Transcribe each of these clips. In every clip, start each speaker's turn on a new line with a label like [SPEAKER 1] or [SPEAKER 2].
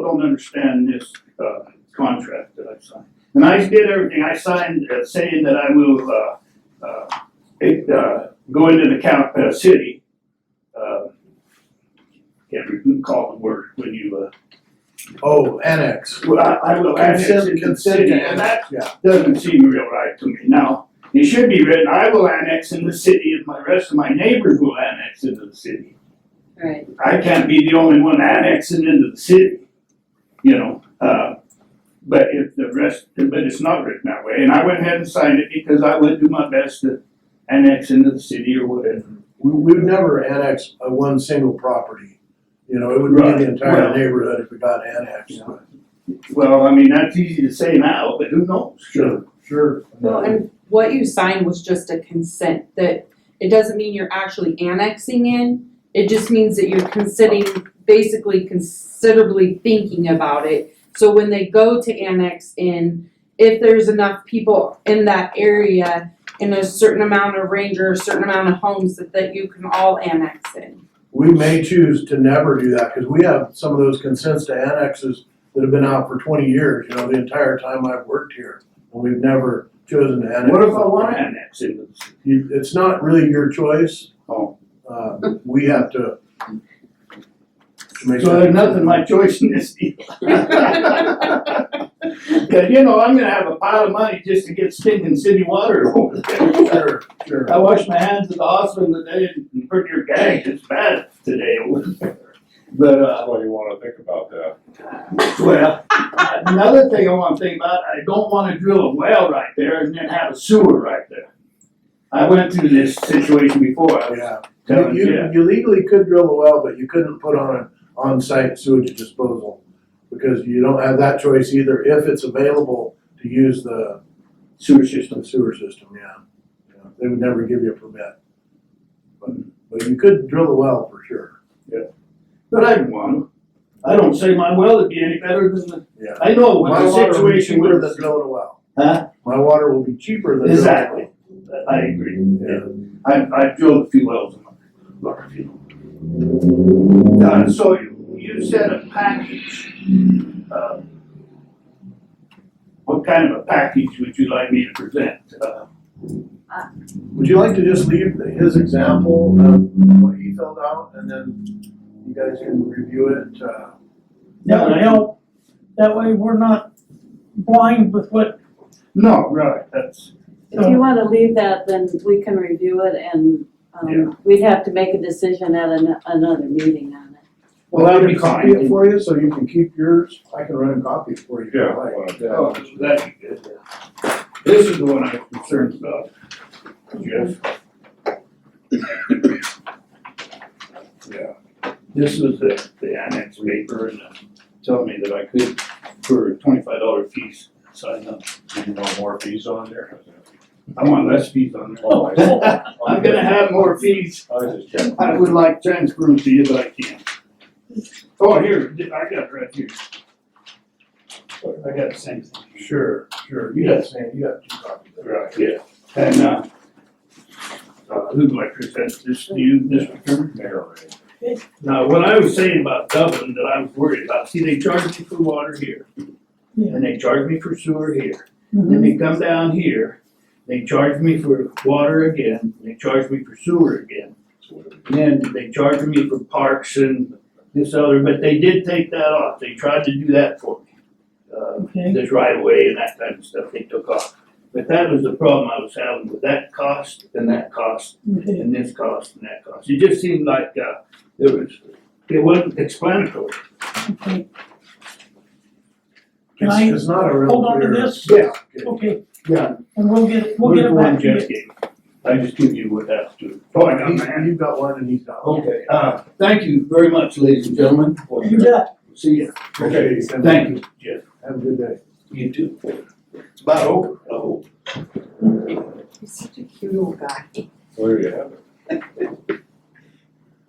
[SPEAKER 1] don't understand this, uh, contract that I signed. And I did everything, I signed uh, saying that I will, uh, uh, it, uh, go into the cap, uh, city. uh, Can't recall the word when you, uh,
[SPEAKER 2] Oh, annex.
[SPEAKER 1] well, I, I will annex
[SPEAKER 2] Consent-
[SPEAKER 1] into the
[SPEAKER 2] consent
[SPEAKER 1] city,
[SPEAKER 2] to
[SPEAKER 1] and that
[SPEAKER 2] annex, Yeah,
[SPEAKER 1] doesn't seem real right to me. Now, it should be written, I will annex in the city and my rest of my neighbors will annex into the city.
[SPEAKER 3] Right,
[SPEAKER 1] I can't be the only one annexing into the city, you know, uh, but if the rest, but it's not written that way. And I went ahead and signed it because I would do my best to annex into the city or whatever.
[SPEAKER 2] we, we've never annexed a one single property. You know, it would be
[SPEAKER 1] Right.
[SPEAKER 2] the entire
[SPEAKER 1] Well-
[SPEAKER 2] neighborhood if it got annexed.
[SPEAKER 1] Well, I mean, that's easy to say now, but who knows?
[SPEAKER 2] Sure, sure.
[SPEAKER 3] well, and what you signed was just a consent that, it doesn't mean you're actually annexing in. It just means that you're considering, basically considerably thinking about it. So when they go to annex in, if there's enough people in that area in a certain amount of range or a certain amount of homes that, that you can all annex in.
[SPEAKER 2] We may choose to never do that, cause we have some of those consents to annexes that have been out for twenty years, you know, the entire time I've worked here. And we've never chosen to annex.
[SPEAKER 1] What if I wanna annex into the city?
[SPEAKER 2] You, it's not really your choice.
[SPEAKER 1] Oh.
[SPEAKER 2] Uh, we have to. to make
[SPEAKER 1] So
[SPEAKER 2] that-
[SPEAKER 1] there's nothing my choice in this deal. Cause you know, I'm gonna have a pile of money just to get stinking city water over there.
[SPEAKER 2] Sure, sure.
[SPEAKER 1] I washed my hands at the hospital today and pretty near gagged, it's bad today. But, uh,
[SPEAKER 4] That's why you wanna think about that.
[SPEAKER 1] well, another thing I wanna think about, I don't wanna drill a well right there and then have a sewer right there. I went through this situation before, I was
[SPEAKER 2] Yeah,
[SPEAKER 1] telling
[SPEAKER 2] you,
[SPEAKER 1] you.
[SPEAKER 2] you- you legally could drill a well, but you couldn't put on an on-site sewage disposal. Because you don't have that choice either, if it's available to use the
[SPEAKER 1] Sewer system.
[SPEAKER 2] the sewer system, yeah. Yeah, They would never give you a permit. But, but you could drill a well for sure,
[SPEAKER 1] But I won. I don't say my well would be any better than the,
[SPEAKER 2] yeah.
[SPEAKER 1] I know what
[SPEAKER 2] My
[SPEAKER 1] the
[SPEAKER 2] water will be
[SPEAKER 1] situation
[SPEAKER 2] cheaper
[SPEAKER 1] would
[SPEAKER 2] than drilling a well.
[SPEAKER 1] Huh?
[SPEAKER 2] My water will be cheaper than drilling a well.
[SPEAKER 1] Exactly. I agree.
[SPEAKER 2] Yeah.
[SPEAKER 1] I, I drilled a few wells in my, like a few. Uh, so you, you said a package. Uh, What kind of a package would you like me to present? Uh,
[SPEAKER 2] Would you like to just leave the- his example of what he filled out and then you guys can review it, uh,
[SPEAKER 5] That would help, that way we're not blind with what,
[SPEAKER 1] No, right, that's,
[SPEAKER 6] If you wanna leave that, then we can review it and,
[SPEAKER 1] Yeah.
[SPEAKER 6] um, we'd have to make a decision at an, another meeting on it.
[SPEAKER 1] Well, that'd be fine.
[SPEAKER 2] Copy it for you, so you can keep yours, I can run and copy it for you if
[SPEAKER 4] Yeah,
[SPEAKER 2] you like.
[SPEAKER 4] when I-
[SPEAKER 1] oh, that'd be good. This is the one I'm concerned about. Jeff,
[SPEAKER 4] yeah,
[SPEAKER 1] this was the, the annex paper and uh, telling me that I could, for twenty-five dollar fees, sign up.
[SPEAKER 4] you want more fees on there?
[SPEAKER 1] I want less fees on there.
[SPEAKER 4] Oh, I see.
[SPEAKER 1] I'm gonna have more fees.
[SPEAKER 4] I was just checking.
[SPEAKER 1] I would like transferred to you, but I can't. Oh, here, I got it right here. I got the same thing.
[SPEAKER 2] Sure, sure, you got same, you got two copies. there.
[SPEAKER 1] Right, yeah. And, uh, uh, who do I present this to you, Mr. Chairman?
[SPEAKER 4] Mayor Ray.
[SPEAKER 1] Now, what I was saying about Dublin that I was worried about, see, they charge me for water here.
[SPEAKER 5] Yeah.
[SPEAKER 1] And they charge me for sewer here. Then they come down here, they charge me for water again, and they charge me for sewer again. And then they charge me for parks and this other, but they did take that off, they tried to do that for me. Uh,
[SPEAKER 5] okay,
[SPEAKER 1] this right of way and that kind of stuff they took off. But that was the problem I was having with that cost and that cost
[SPEAKER 5] okay.
[SPEAKER 1] and this cost and that cost. It just seemed like, uh, it was, it wasn't explanatory.
[SPEAKER 5] okay. Can
[SPEAKER 2] It's,
[SPEAKER 5] I
[SPEAKER 2] it's not a real
[SPEAKER 5] hold on to
[SPEAKER 2] clear-
[SPEAKER 5] this?
[SPEAKER 1] Yeah.
[SPEAKER 5] Okay,
[SPEAKER 1] Yeah.
[SPEAKER 5] and we'll get, it- we'll get it back to you.
[SPEAKER 1] I just give you what that's due. Oh, I got my hand.
[SPEAKER 2] He- You've got one and he's got one.
[SPEAKER 1] Okay, uh, thank you very much, ladies and gentlemen. for
[SPEAKER 5] You
[SPEAKER 1] your-
[SPEAKER 5] got it.
[SPEAKER 1] See ya.
[SPEAKER 2] Okay,
[SPEAKER 1] Thank you, Jeff.
[SPEAKER 2] Have a good day.
[SPEAKER 1] You too. About over, oh.
[SPEAKER 3] He's such a cute little guy.
[SPEAKER 4] Well, There you have it.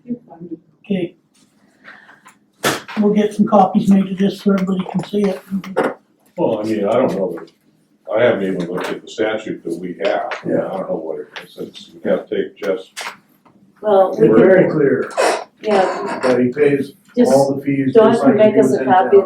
[SPEAKER 3] You're funny.
[SPEAKER 5] okay. We'll get some copies made of this so everybody can see it.
[SPEAKER 4] Well, I mean, I don't know, that- I haven't even looked at the statute that we have, I mean, I don't know what it is, it's, we have to take Jeff's
[SPEAKER 6] Well, we
[SPEAKER 2] We're
[SPEAKER 6] can,
[SPEAKER 2] very clear
[SPEAKER 6] yeah,
[SPEAKER 2] that he pays
[SPEAKER 6] just,
[SPEAKER 2] all the fees
[SPEAKER 6] Dawn
[SPEAKER 2] just
[SPEAKER 6] can
[SPEAKER 2] like he
[SPEAKER 6] make us
[SPEAKER 2] does
[SPEAKER 6] a
[SPEAKER 2] anything
[SPEAKER 6] copy
[SPEAKER 2] else.